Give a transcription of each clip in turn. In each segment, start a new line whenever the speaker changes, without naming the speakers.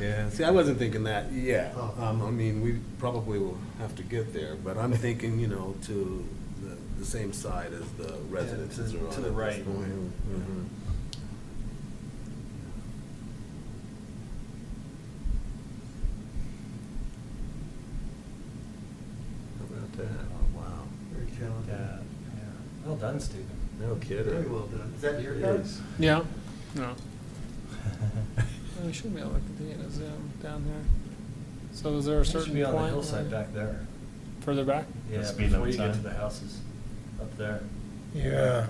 Yeah, see, I wasn't thinking that, yeah.
Oh.
Um, I mean, we probably will have to get there, but I'm thinking, you know, to the, the same side as the residences
to-
are on.
to the
at this
right.
point. Mhm.
How about that?
Oh, wow. Very
Yeah,
talented.
yeah. Well done, Stephen.
No kidding.
Very well done. Is that your
It
note?
is.
Yeah, no, Well, we should be able to continue to zoom down there. So is there a
It
certain
should be on the
point
hillside
where-
back there.
Further back?
Yeah,
speed
before you
limit
get to
sign.
the houses up there.
Yeah.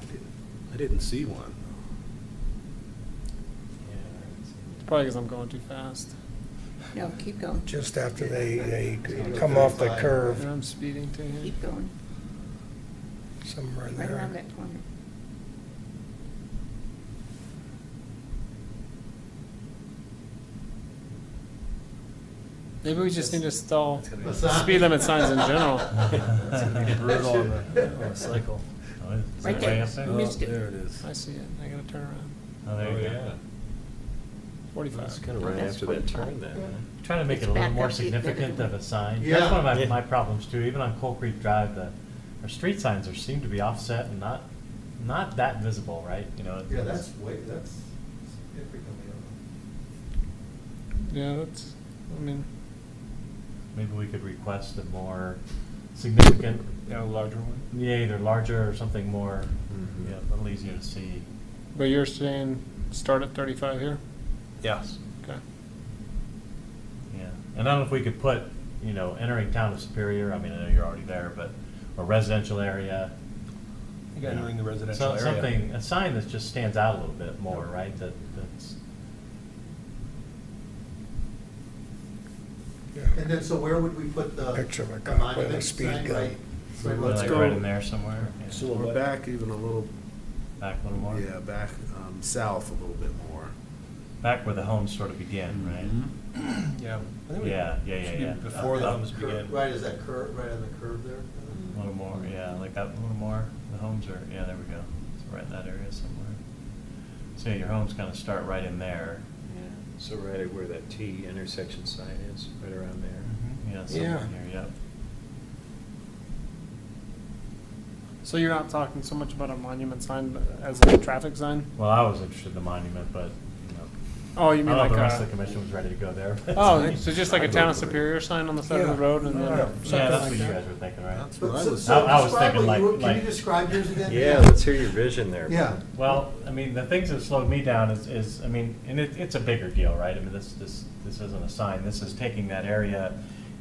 I didn't- I didn't see one.
Yeah.
It's Probably because I'm going too fast.
No, keep going,
Just after they, they
Yeah.
come off the
Thirty-five.
And
curve,
I'm speeding too here.
keep going,
somewhere in
right around
there.
that corner.
Maybe we just need to stall
It's gonna
The
be-
sign?
speed limit signs in general.
It's gonna be brutal on the, on the cycle.
Right there, missed
Oh, There
it.
it is.
I see it, I gotta turn around.
Oh,
there you go.
yeah. It's
Forty-five.
kind of right
That's
after that
pretty
turn
fun.
then. huh?
Trying to make
It's
it a little
back
more
up the-
significant of a sign.
Yeah.
That's one of my,
Yeah.
my problems too, even on Coal Creek Drive, the, our street signs are, seem to be offset and not, not that visible, right? You know,
Yeah, that's way, that's significantly over.
Yeah, that's, I mean,
maybe we could request a more significant,
Yeah, larger one.
yeah, either larger or something more,
Mhm.
Mm-hmm.
yeah, a little easier to see.
but you're saying start at thirty-five here?
Yes.
Okay.
Yeah, and I don't know if we could put, you know, entering town of Superior, I mean, I know you're already there, but, or residential area.
You gotta
know,
ring the residential
some-
area.
Something, a sign that just stands out a little bit more, right, that, that's,
And then, so where would we put the?
Picture of a
the
cop with a
monument
speed
sign,
gun.
right- right where
like
it's-
go.
right in there somewhere. yeah.
So we're back even a little,
Back a little more,
yeah, back, um, south a little bit more.
back where the homes sort of begin, right?
Yeah. I think we-
Yeah, yeah, yeah,
Mm-hmm. should be
yeah.
Before the
that
homes
curve-
begin.
Right, is that curve, right on the curve there?
A little more, yeah, like that, a little more, the homes are, yeah, there we go, it's right in that area somewhere. So yeah, your homes kind of start right in there.
So right at where that T intersection sign is, right around there.
Mm-hmm. Yeah, somewhere
Yeah.
near, yep.
So you're not talking so much about a monument sign as a traffic sign?
Well, I was interested in the monument, but, you know.
Oh, you
I
mean
don't know if
like
the rest of the
a,
commission was ready to go there. but-
oh, so just like a
Yeah,
town of Superior sign on the side of the
Yeah.
road and
Yeah,
then?
something
Yeah, that's
like
what you
that.
guys were thinking, right?
That's
But
what I
so-
was.
so
I- I was
describe
thinking
what you
like-
were- Can
like-
you describe yours again?
Yeah, let's hear your vision there.
Yeah.
Well, I mean, the things that slowed me down is, is, I mean, and it, it's a bigger deal, right? I mean, this, this, this isn't a sign, this is taking that area,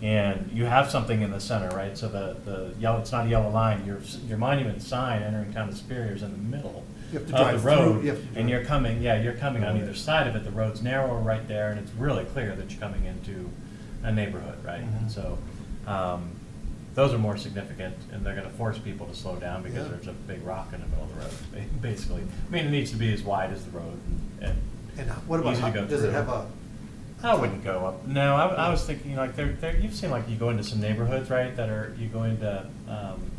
and you have something in the center, right? So the, the yellow, it's not a yellow line, your, s- your monument sign entering town of Superior is in the middle
You have
of
to
the
drive through,
road.
you have to drive.
And you're coming, yeah, you're coming on either side of it, the road's narrower right there, and it's really clear that you're coming into a neighborhood, right?
Mm-hmm.
And so, um, those are more significant, and they're gonna force people to slow down because
Yeah.
there's a big rock in the middle of the road, ba- basically. I mean, it needs to be as wide as the road, and, and
And uh, what about,
Easy to go
does it
through.
have a,
I wouldn't go up. No, I, I was thinking like there, there. You've seen like you go into some neighborhoods, right? That are you go into. Um,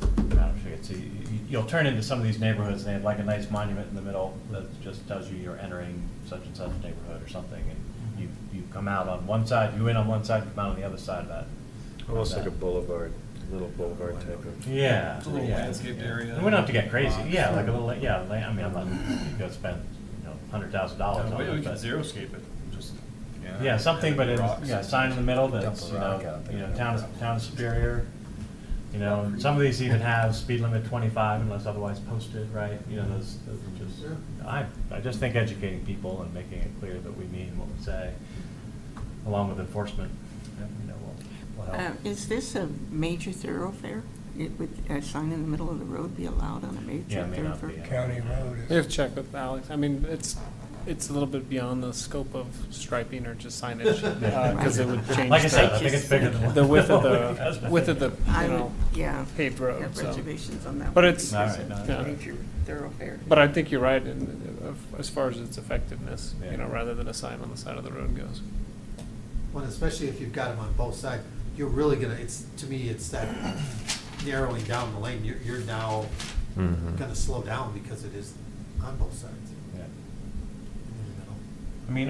I don't know if you could see. you- You'll turn into some of these neighborhoods, and they have like a nice monument in the middle that just tells you you're entering such and such neighborhood or something, and you you come out on one side, you in on one side, you come out on the other side of that. of
Almost like
that.
a boulevard, a little boulevard type of.
Yeah.
It's a little
yeah,
landscaped
yeah.
area.
And we don't have to get crazy.
Lots.
Yeah, like a little. Yeah, like, I mean, I'm not you go spend you know hundred thousand dollars
No,
on
We
it.
we
but-
could xeriscape it, just.
Yeah, something, but it's,
Rocks.
yeah, a sign in the middle that's,
Dump
you
a rock
know,
out there.
you know, town, of- town of Superior. You know, and some of these even have speed limit twenty-five unless otherwise posted, right? You know, those, those are just, I, I just think educating people and making it clear that we mean what we say, along with enforcement, you know, will, will
Uh,
help.
Is this a major thoroughfare? It Would a sign in the middle of the road be allowed on a
Yeah,
major
it may not be.
thoroughfare?
County road is.
We have checked with Alex, I mean, it's, it's a little bit beyond the scope of striping or just signage, because it would change
Like I said, I
the,
think it's bigger than.
the width of
Because-
the, width of the,
I
you
would,
know,
yeah,
paved road,
have
so.
reservations on that.
But
one
it's-
because
All right,
it's
no,
a
no.
Major thoroughfare.
But I think you're right in, of- as far as its effectiveness,
Yeah.
you know, rather than a sign on the side of the road goes.
well, especially if you've got them on both sides, you're really gonna, it's, to me, it's that narrowing down the lane, you're, you're now
Mm-hmm.
Mm-hmm.
gonna slow down because it is on both sides.
Yeah.
in the middle.
I mean,